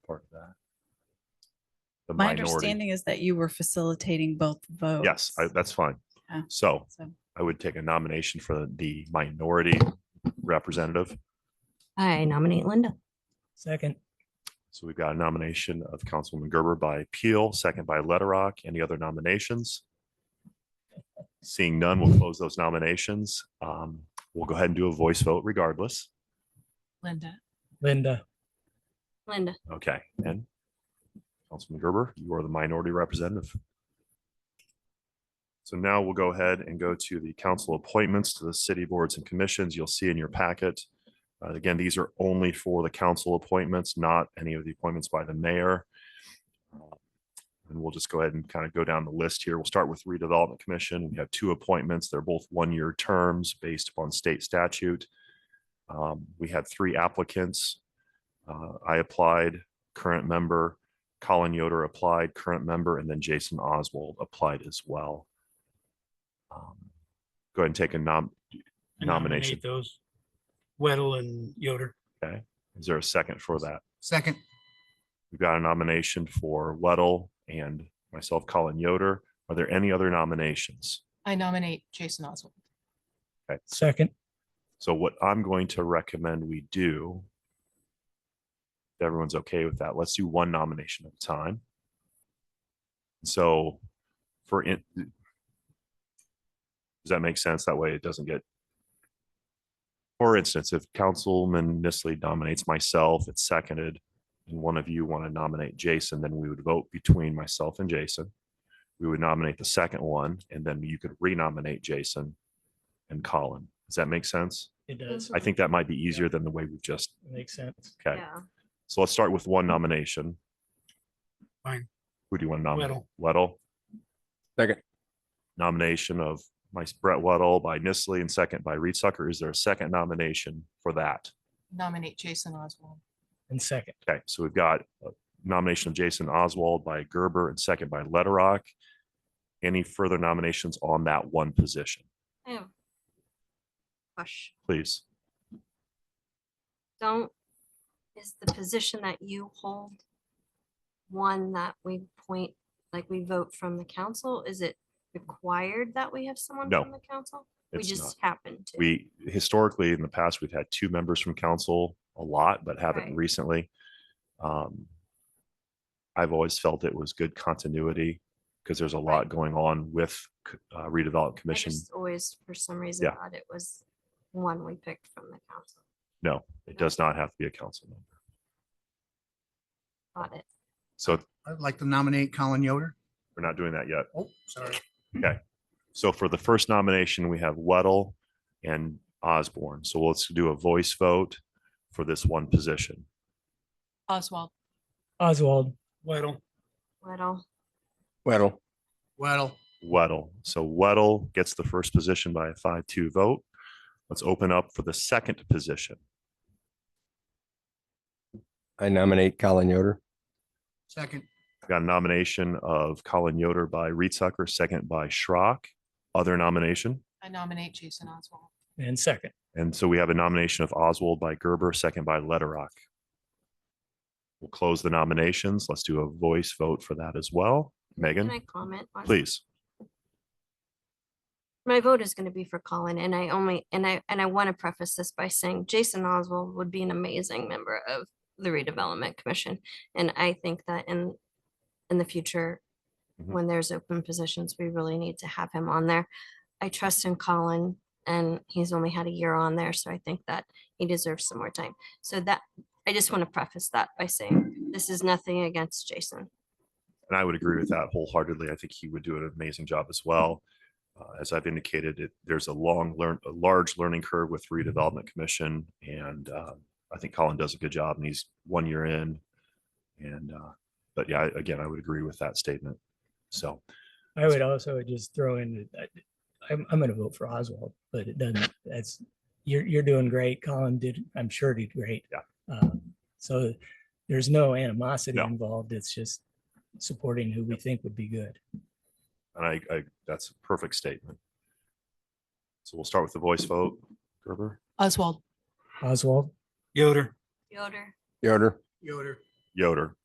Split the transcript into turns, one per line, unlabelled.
the
My
minority.
understanding is that you were facilitating both votes.
Yes, I- that's fine.
Yeah.
So
So
I would take a nomination for the minority representative.
I nominate Linda.
Second,
So we've got a nomination of Councilwoman Gerber by Peel, second by Letterock. Any other nominations? Seeing none, we'll close those nominations. Um, We'll go ahead and do a voice vote regardless.
Linda,
Linda,
Linda.
Okay, and Councilman Gerber, you are the minority representative. So now we'll go ahead and go to the council appointments to the city boards and commissions. You'll see in your packet. uh, Again, these are only for the council appointments, not any of the appointments by the mayor. And we'll just go ahead and kind of go down the list here. We'll start with redevelopment commission. We have two appointments. They're both one-year terms based upon state statute. Um, We had three applicants. Uh, I applied, current member, Colin Yoder applied, current member, and then Jason Oswald applied as well. Um, Go ahead and take a nom,
I nominate
Nomination.
Those Weddle and Yoder.
is there a second for that?
Second,
We've got a nomination for Weddle and myself, Colin Yoder. Are there any other nominations?
I nominate Jason Oswald.
second,
So what I'm going to recommend we do, if everyone's okay with that, let's do one nomination at a time. So for it, does that make sense? That way it doesn't get, for instance, if Councilman Nisley nominates myself, it's seconded, and one of you want to nominate Jason, then we would vote between myself and Jason. We would nominate the second one, and then you could renominate Jason and Colin. Does that make sense?
it does.
I think that might be easier than the way we've just,
Makes sense.
okay. So let's start with one nomination.
Fine.
Who do you want to nominate?
Weddle.
Weddle.
Second.
Nomination of my Brett Weddle by Nisley and second by Reed Sucker. Is there a second nomination for that?
Nominate Jason Oswald.
And second,
Okay, so we've got a nomination of Jason Oswald by Gerber and second by Letterock. Any further nominations on that one position,
I have a Question.
please?
Don't, is the position that you hold one that we point, like we vote from the council? Is it required that we have someone
No.
from the council? We
It's
just
not-
happen to.
We historically, in the past, we've had two members from council a lot, but haven't
Right.
recently. Um, I've always felt it was good continuity because there's a lot
Right.
going on with c- uh, redevelopment
I
commission.
just always, for some reason,
Yeah.
thought it was one we picked from the council.
No, it does not have to be a council member.
Got it.
So
I'd like to nominate Colin Yoder.
we're not doing that yet.
Oh, sorry.
So for the first nomination, we have Weddle and Osborne. So let's do a voice vote for this one position.
Oswald.
Oswald,
Weddle,
Little,
Weddle.
Well,
Weddle. So Weddle gets the first position by a five-two vote. Let's open up for the second position.
I nominate Colin Yoder.
second,
I've Got a nomination of Colin Yoder by Reed Sucker, second by Schrock. Other nomination.
I nominate Jason Oswald.
and second,
And so we have a nomination of Oswald by Gerber, second by Letterock. We'll close the nominations. Let's do a voice vote for that as well.
can I
Megan,
comment? on-
please.
My vote is going to be for Colin and I only, and I, and I want to preface this by saying Jason Oswald would be an amazing member of the redevelopment commission. And I think that in, in the future,
Mhm.
when there's open positions, we really need to have him on there. I trust in Colin and he's only had a year on there, so I think that he deserves some more time. So that, I just want to preface that by saying this is nothing against Jason.
And I would agree with that wholeheartedly. I think he would do an amazing job as well. Uh, As I've indicated, it, there's a long learn, a large learning curve with redevelopment commission and uh, I think Colin does a good job and he's one year in. And, uh, but yeah, I- again, I would agree with that statement. So
I would also just throw in, that I- I'm, I'm gonna vote for Oswald, but it doesn't, that's, you're, you're doing great. Colin did, I'm sure did great.
Yeah.
Um, So there's no animosity
No.
involved. It's just supporting who we think would be good.
And I, I, that's a perfect statement. So we'll start with the voice vote. Gerber,
Oswald.
Oswald?
Yoder.
Yoder,
Yoder.
Yoder.
Yoder.